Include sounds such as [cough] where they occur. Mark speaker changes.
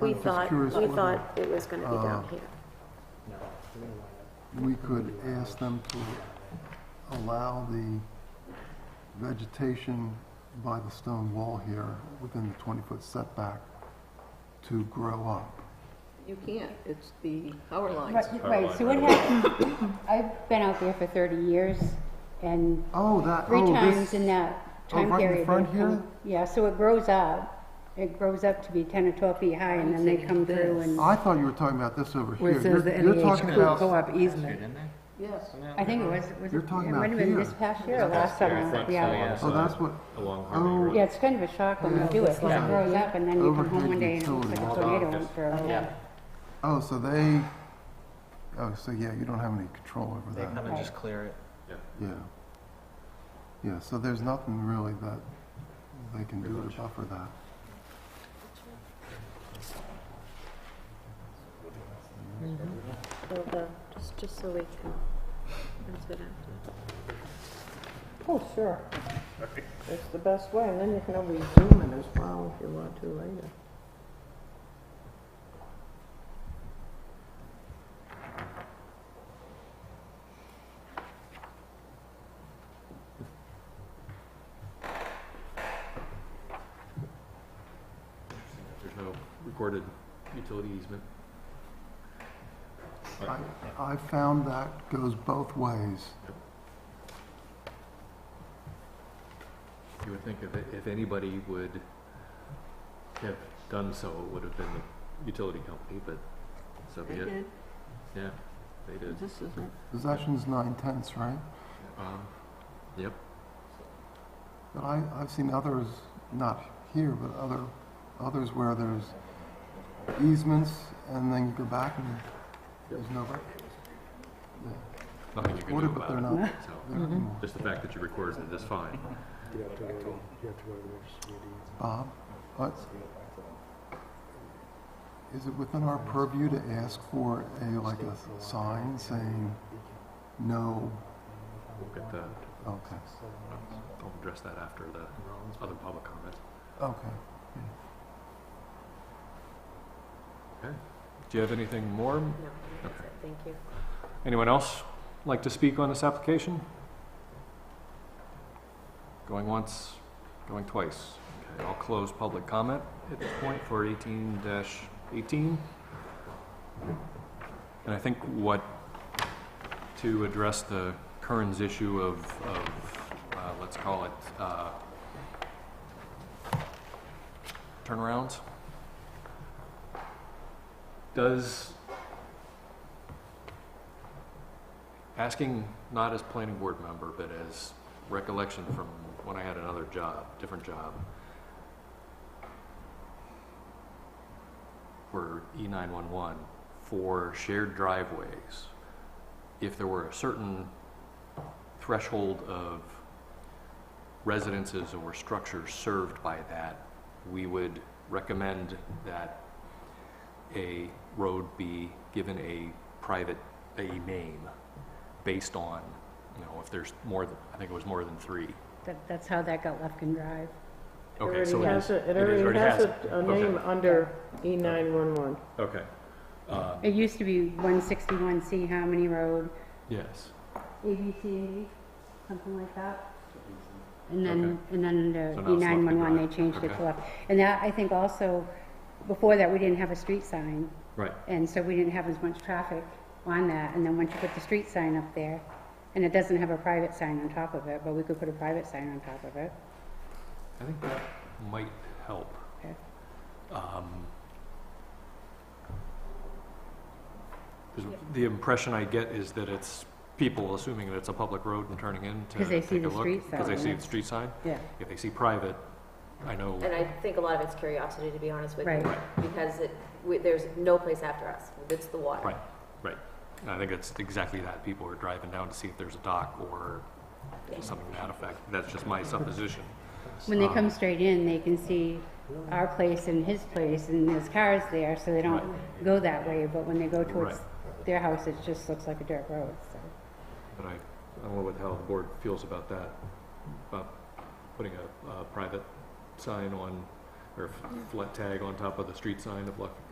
Speaker 1: we
Speaker 2: I'm just
Speaker 1: thought,
Speaker 2: curious Ah.
Speaker 1: we
Speaker 2: whether
Speaker 1: thought it was gonna be down here.
Speaker 2: We could ask them to allow the vegetation by the stone wall here within the 20-foot setback to grow up.
Speaker 3: You can't, it's the power lines.
Speaker 4: Right, right, so what happened, [coughs] I've been out there for thirty years, and
Speaker 2: Oh, that,
Speaker 4: three
Speaker 2: oh,
Speaker 4: times
Speaker 2: this,
Speaker 4: in that
Speaker 2: oh,
Speaker 4: time
Speaker 2: right in
Speaker 4: period. they
Speaker 2: front
Speaker 4: come-
Speaker 2: here?
Speaker 4: Yeah, so it grows up, it grows up to be ten or twelve feet high, and then they come through and,
Speaker 2: I thought you were talking about this over here.
Speaker 5: Where it says the
Speaker 2: Oh, You're- you're
Speaker 5: NEH
Speaker 2: talking
Speaker 5: could
Speaker 2: about-
Speaker 5: co-op easement.
Speaker 3: Yes,
Speaker 4: I think it was, was
Speaker 2: You're
Speaker 4: it, it
Speaker 2: talking
Speaker 4: might have
Speaker 2: about
Speaker 4: been
Speaker 2: here.
Speaker 4: this past year or last summer, yeah.
Speaker 2: Oh, that's what,
Speaker 6: Along Harmony
Speaker 2: oh,
Speaker 6: Road.
Speaker 4: Yeah, it's kind of a shock when you do it, 'cause it grows up, and then you come home one
Speaker 2: Overhead
Speaker 4: day and it looks like a
Speaker 2: utilities.
Speaker 4: tornado went through.
Speaker 2: oh, so they, oh, so yeah, you don't have any control over
Speaker 7: They
Speaker 2: that.
Speaker 7: come and just clear it.
Speaker 2: Yeah. Yeah, so there's nothing really that they can do to buffer that.
Speaker 1: So the- just, just so we can, that's what I-
Speaker 3: oh, sure. It's the best way, and then you can always zoom in as well if you want to later.
Speaker 6: There's no recorded utility easement.
Speaker 2: I, I found that goes both ways.
Speaker 6: You would think if, if anybody would have done so, it would have been the utility company, but so be
Speaker 3: They
Speaker 6: it.
Speaker 3: did,
Speaker 6: Yeah, they did.
Speaker 3: this isn't.
Speaker 2: Possession's nine tenths, right?
Speaker 1: Mm-hmm.
Speaker 6: Um,
Speaker 2: But I, I've seen others, not here, but other, others where there's easements and then you go back and there's no record. Yeah,
Speaker 6: Nothing you can do
Speaker 2: Recorded,
Speaker 6: about
Speaker 2: but they're
Speaker 6: it. [laughs]
Speaker 2: not
Speaker 6: So
Speaker 2: there anymore.
Speaker 6: just the fact that you recorded it is fine.
Speaker 2: Bob, uh, is it within our purview to ask for a, like a sign saying, no,
Speaker 6: We'll get the,
Speaker 2: okay,
Speaker 6: I'll address that after the other public comment.
Speaker 2: okay.
Speaker 6: Do you have anything more?
Speaker 1: no, that's it, thank you.
Speaker 6: Anyone else like to speak on this application? Going once, going twice. Okay, I'll close public comment at this point for eighteen eighteen. And I think what, to address the Kearns issue of, of, uh, let's call it, uh, turnarounds. Does asking not as planning board member, but as recollection from when I had another job, different job. For E nine one one, for shared driveways, if there were a certain threshold of residences or structures served by that, we would recommend that a road be given a private, a name based on, you know, if there's more, than I think it was more than three.
Speaker 4: That, that's how that got left and drive.
Speaker 6: Okay, so it is.
Speaker 3: It
Speaker 6: is-
Speaker 3: already has
Speaker 6: it.
Speaker 3: a, a
Speaker 6: Okay.
Speaker 3: name under E nine one one.
Speaker 6: Okay. Uh,
Speaker 4: It used to be one sixty-one C Harmony Road,
Speaker 6: Yes,
Speaker 4: ABC, something like that. And then,
Speaker 6: Okay.
Speaker 4: and then the
Speaker 6: So now
Speaker 4: E
Speaker 6: it's left
Speaker 4: nine
Speaker 6: and
Speaker 4: one one,
Speaker 6: right.
Speaker 4: they changed it
Speaker 6: Okay.
Speaker 4: to left. And that, I think also, before that, we didn't have a street sign,
Speaker 6: right.
Speaker 4: and so we didn't have as much traffic on that. And then once you put the street sign up there, and it doesn't have a private sign on top of it, but we could put a private sign on top of it.
Speaker 6: I think that might help.
Speaker 4: Okay.
Speaker 6: Um, 'cause The impression I get is that it's people assuming that it's a public road and turning in to
Speaker 4: 'Cause they
Speaker 6: take
Speaker 4: see
Speaker 6: a
Speaker 4: the
Speaker 6: look.
Speaker 4: street
Speaker 6: Because they
Speaker 4: sign,
Speaker 6: see
Speaker 4: yeah.
Speaker 6: the street sign.
Speaker 4: Yeah.
Speaker 6: If they see private, I know,
Speaker 1: And I think a lot of it's curiosity, to be honest with you.
Speaker 4: Right.
Speaker 1: Because it, we- there's no place after us, it's the water.
Speaker 6: right, right. And I think it's exactly that. People are driving down to see if there's a dock or something to that effect. That's just my supposition.
Speaker 4: When they
Speaker 6: Um,
Speaker 4: come straight in, they can see our place and his place, and there's cars there, so they don't go that way, but when they go towards their house, it just looks like a dirt road, so.
Speaker 6: But I, I don't know what, how the board feels about that, about putting a, a private sign on, or a flat tag on top of the street sign of Luck,